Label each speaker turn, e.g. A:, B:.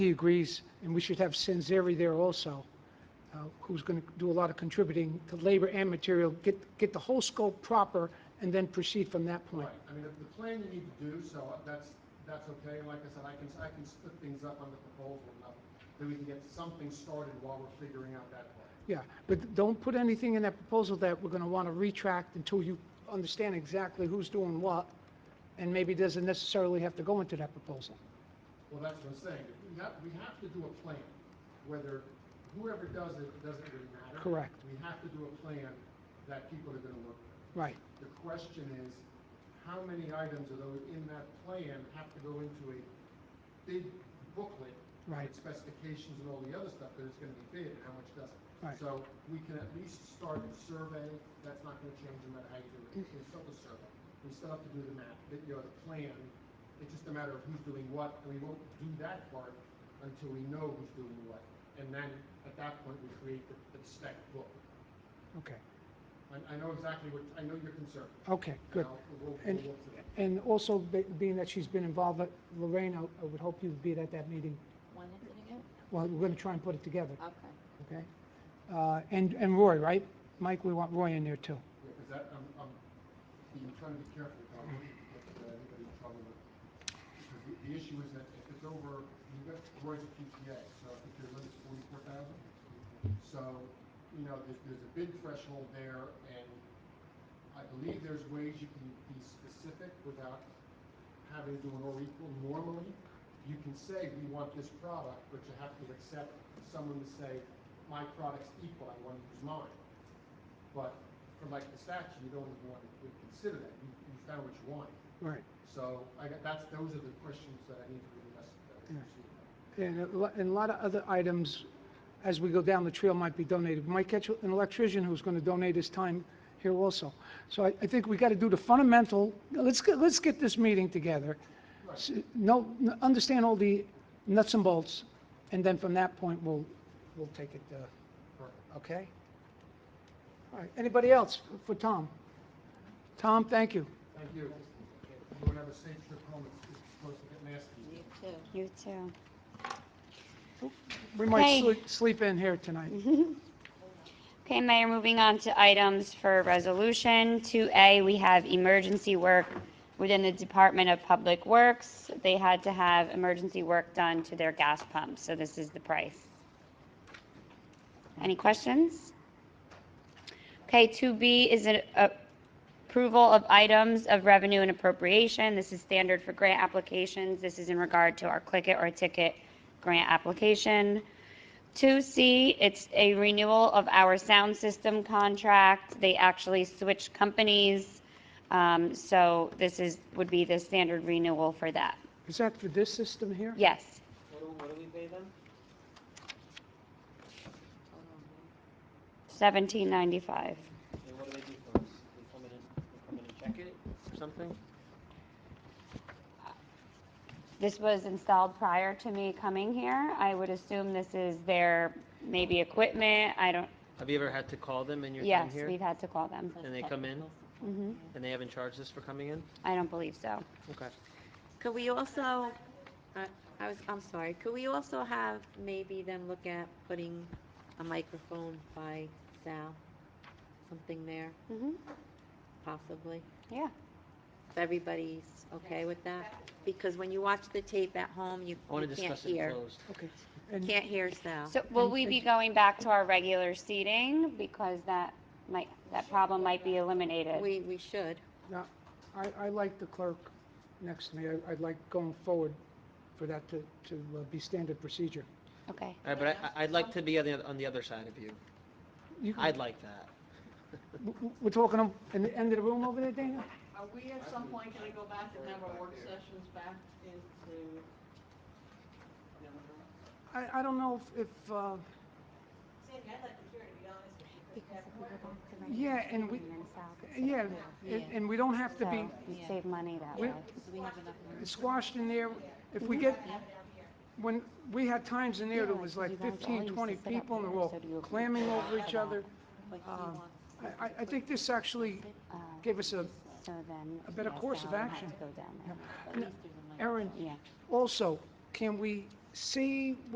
A: He agrees, and we should have Sanzeri there also, uh, who's going to do a lot of contributing to labor and material, get, get the whole scope proper, and then proceed from that point.
B: Right, I mean, the plan you need to do, so that's, that's okay, and like I said, I can, I can split things up on the proposal enough that we can get something started while we're figuring out that plan.
A: Yeah, but don't put anything in that proposal that we're going to want to retract until you understand exactly who's doing what, and maybe doesn't necessarily have to go into that proposal.
B: Well, that's what I'm saying, we have, we have to do a plan, whether, whoever does it, it doesn't really matter.
A: Correct.
B: We have to do a plan that people are gonna look at.
A: Right,
B: The question is, how many items of those in that plan have to go into a big booklet?
A: Right.
B: with Specifications and all the other stuff, that it's gonna be big, and how much doesn't.
A: Right.
B: So we can at least start a survey, that's not gonna change no matter how you do it, it's still a survey. We still have to do the map, but, you know, the plan, it's just a matter of who's doing what, and we won't do that part until we know who's doing what. And then, at that point, we create the, the spec book.
A: okay,
B: I, I know exactly what, I know your concern.
A: okay, good.
B: Now, we'll- we'll
A: And,
B: look to that.
A: and also, be- being that she's been involved, uh, Lorraine, I I would hope you'd be at that meeting.
C: When is it again?
A: Well, we're going to try and put it together,
C: Okay.
A: okay? Uh, And, and Roy, right? Mike, we want Roy in there too.
B: Because that, I'm, I'm, I'm trying to be careful, because I don't want to get uh, anybody in trouble with, because the, the issue is that if it's over, you've got Roy's PTA, so I think your limit's forty-four thousand. So, you know, there's, there's a bid threshold there, and I believe there's ways you can be specific without having to do an or equal. Normally, you can say, we want this product, but you have to accept someone to say, my product's equal, I want to use mine. But for like the statue, you don't even want to consider that. You, you found what you wanted.
A: Right.
B: So I got, that's, those are the questions that I need to be addressed. uh,
A: Yeah.
B: proceed.
A: And a lo- and a lot of other items, as we go down the trail, might be donated. We might catch an electrician who's going to donate his time here also. So I, I think we got to do the fundamental, let's, get let's get this meeting together. S- No, n- understand all the nuts and bolts, and then from that point, we'll, we'll take it, uh,
B: Perfect.
A: okay? All right, anybody else for Tom? Tom, thank you.
B: Thank you. Everyone have a safe trip home. It's it's supposed to get nasty.
C: You too.
D: You too.
A: We might
D: Hey. Mm-hmm.
A: sleep- sleep in here tonight.
D: Okay, Mayor, moving on to items for resolution. 2A, we have emergency work within the Department of Public Works. They had to have emergency work done to their gas pumps, so this is the price. Any questions? Okay, 2B is an uh, approval of items of revenue and appropriation. This is standard for grant applications. This is in regard to our Click It or Ticket grant application. 2C, it's a renewal of our sound system contract. They actually switched companies. Um, So this is, would be the standard renewal for that.
A: Is that for this system here?
D: Yes.
E: What do, what do we pay them?
D: 1795.
E: And what do they do for us? They come in and, they come in and check it or something?
D: This was installed prior to me coming here. I would assume this is their maybe equipment. I don't,
E: Have you ever had to call them in your time
D: yes,
E: here?
D: we've had to call them.
E: And they come in
D: Mhm.
E: and they haven't charged us for coming in?
D: I don't believe so.
E: Okay.
C: Could we also, I I was, I'm sorry, could we also have maybe them look at putting a microphone by Sal? Something there,
D: Mhm.
C: possibly?
D: Yeah.
C: If everybody's okay with that? Because when you watch the tape at home, you
E: I want
C: you
E: to
C: can't
E: discuss it
C: hear.
E: closed.
A: Okay. And-
C: Can't hear Sal.
D: So will we be going back to our regular seating because that might, that problem might be eliminated?
C: We, we should.
A: Now, uh, I, I like the clerk next to me. I- I'd like going forward for that to, to uh, be standard procedure.
D: Okay.
E: All right, but I- I, I'd like to be on the, oth- on the other side of you.
A: You can-
E: I'd like that.
A: w- w- We're talking on- in the end of the room over there, Dana?
F: Are we at some point gonna go back and have our work sessions back into?
A: I, I don't know if, if, uh,
G: Sandy, I'd like to hear it, to be honest with you. but that board-
A: yeah, and we, yeah, and, and we don't have to be
D: You save money that
A: We-
D: way.
A: squashed in there. If we get, when, we had times in there that was
D: Yeah,
A: like
D: 'cause you guys all
A: 15,
D: used to
A: 20
D: sit up
A: people and
D: there,
A: they're all
D: so do you-
A: clamming over each other.
C: Like, he
A: Um,
C: wants-
A: I, I- I think this actually
D: Uh,
A: gave us a,
D: So then.
A: a better
D: yeah,
A: course of
D: Sal would have
A: action.
D: to go down there.
C: at least there's a mic.
A: Erin,
D: Yeah.
A: Also, can we see